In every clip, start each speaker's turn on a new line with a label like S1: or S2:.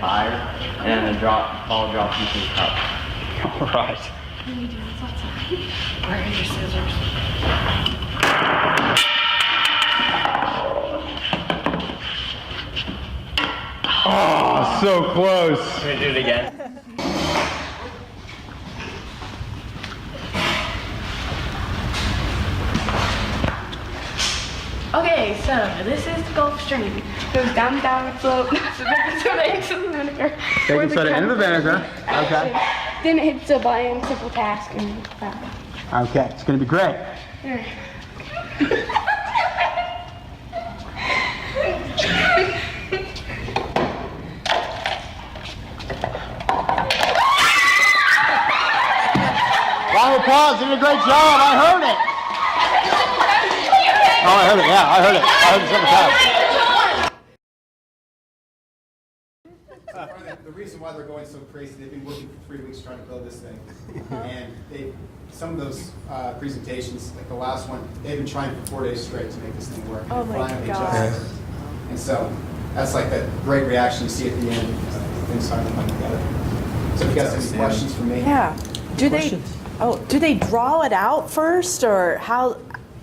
S1: fire, and then the drop, ball dropped into the cup.
S2: All right.
S3: Where are your scissors?
S2: Oh, so close.
S1: Can we do it again?
S3: Okay, so this is the Gulf Stream. Goes down, down, slope, back to the exit of the vinegar.
S2: Baking soda in the vinegar. Okay.
S3: Then it hits the button, simple task, and that.
S2: Okay, it's gonna be great. Round of applause, you did a great job, I heard it. Oh, I heard it, yeah, I heard it, I heard it several times.
S4: part of the, the reason why they're going so crazy, they've been working for three weeks trying to build this thing.
S3: Uh-huh.
S4: And they, some of those uh, presentations, like the last one, they've been trying for four days straight to make this thing work.
S3: Oh my
S4: Finally just-
S3: God.
S4: And so, that's like that great reaction you see at the end, uh, things finally come together. So if you guys have any questions for me?
S5: Yeah. Do they, oh, do they draw it out first or how,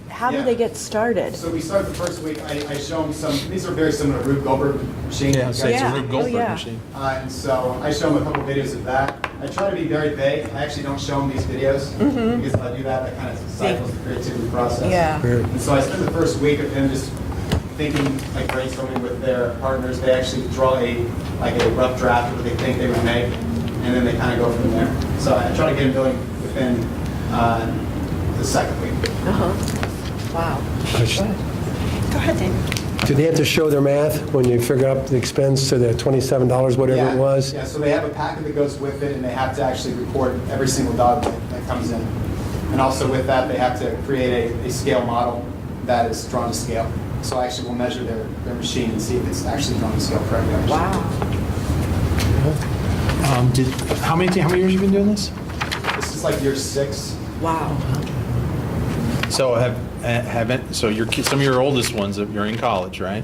S5: how do
S4: Yeah.
S5: they get started?
S4: So we start the first week, I, I show them some, these are very similar to Rube Goldberg machines.
S6: Yeah, so it's
S5: Yeah.
S6: a Rube Goldberg
S5: Oh, yeah.
S6: machine.
S4: Uh, and so I show them a couple videos of that. I try to be very vague. I actually don't show them these videos because if I do that, that kind of stifles the creativity process.
S5: Yeah.
S6: Sure.
S4: And so I spend the first week of them just thinking, like brainstorming with their partners. They actually draw a like a rough draft of what they think they would make, and then they kind of go from there. So I try to get them going within uh, the second week.
S5: Wow. Go ahead, David.
S6: Do they have to show their math when you figure out the expense to the twenty-seven dollars, whatever
S4: yeah.
S6: it was?
S4: Yeah, so they have a packet that goes with it, and they have to actually record every single dog that, that comes in. And also with that, they have to create a, a scale model that is drawn to scale. So I actually will measure their, their machine and see if it's actually drawn to scale correctly.
S5: Wow.
S6: Um, did, how many, how many years you been doing this?
S4: This is like year six.
S5: Wow.
S7: So have, uh, haven't, so your, ki- some of your oldest ones, uh, you're in college, right?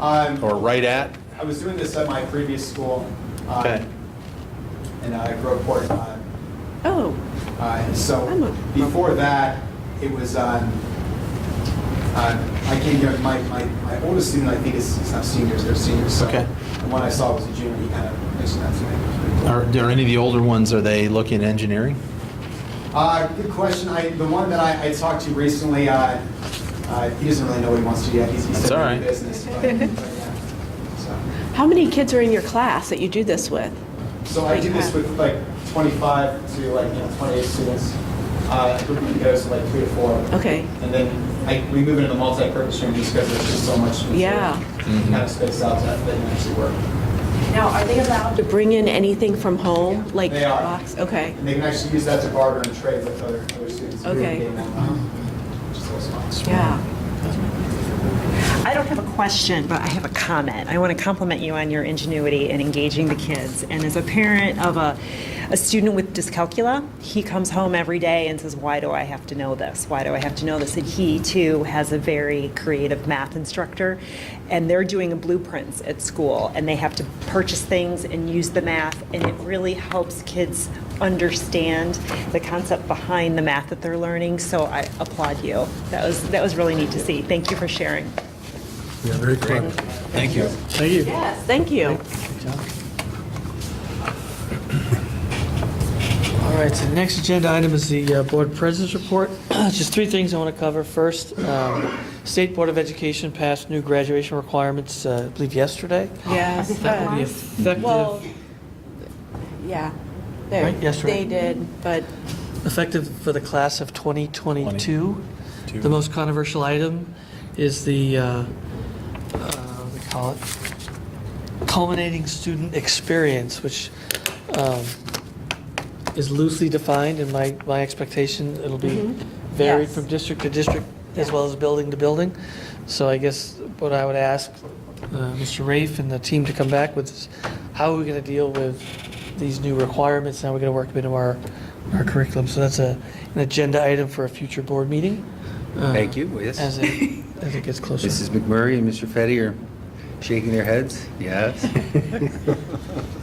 S4: Um,
S7: Or right at?
S4: I was doing this at my previous school uh,
S7: Okay.
S4: in uh, Groveport, uh,
S5: Oh,
S4: Uh, and so
S5: I'm a-
S4: before that, it was um, uh, I came here. My, my, my oldest student, I think, is he's not seniors; they're seniors. So
S7: Okay.
S4: The one I saw was a junior. He kind of mentioned that to me. It was pretty cool.
S7: Are, are any of the older ones, are they looking at engineering?
S4: Uh, good question. I, the one that I, I talked to recently, uh, uh, he doesn't really know what he wants to do yet. He's, he's
S7: That's
S4: still
S7: all
S4: in
S7: right.
S4: business. But, but yeah. So.
S5: how many kids are in your class that you do this with?
S4: So I do this with like 25 to like, you know, 28 students. Uh, group of goes to like three to four.
S5: Okay.
S4: And then I, we move into the multi-purpose room just because there's just so much. material.
S5: Yeah.
S4: Kind of spaced out that they can actually work.
S5: Now, are they allowed to bring in anything from home, like
S4: They are.
S5: box? Okay.
S4: And they can actually use that to barter and trade with other, other students. who are
S5: Okay.
S4: getting online, Which is always fun.
S5: Yeah.
S8: I don't have a question, but I have a comment. I want to compliment you on your ingenuity in engaging the kids. And as a parent of a, a student with dyscalculia, he comes home every day and says, Why do I have to know this? Why do I have to know this? And he too has a very creative math instructor, and they're doing blueprints at school, and they have to purchase things and use the math, and it really helps kids understand the concept behind the math that they're learning. So I applaud you. That was that was really neat to see. Thank you for sharing.
S6: Yeah, very clever.
S7: Thank you.
S6: Thank you.
S5: Yes, thank you.
S9: All right, so next agenda item is the uh, Board President's Report. Just three things I want to cover. First, um, State Board of Education passed new graduation requirements, uh, I believe yesterday.
S5: Yes.
S9: That would be
S5: uh, Well,
S9: effective,
S5: yeah. They-
S9: Right, yes,
S5: They
S9: right.
S5: did, but
S9: effective for the class of 2022. The most controversial item is the, uh, uh, what do they call it? Culminating student experience, which um, is loosely defined, and my, my expectation, it'll be varied
S5: Yes.
S9: from district to district as well as building to building. So I guess what I would ask uh, Mr. Rafe and the team to come back with is, how are we going to deal with these new requirements? How are we going to work them into our, our curriculum? So that's a, an agenda item for a future board meeting. uh,
S10: Thank you, yes.
S9: As it, as it gets closer.
S10: Mrs. McMurray and Mr. Fetty are shaking their heads, yes.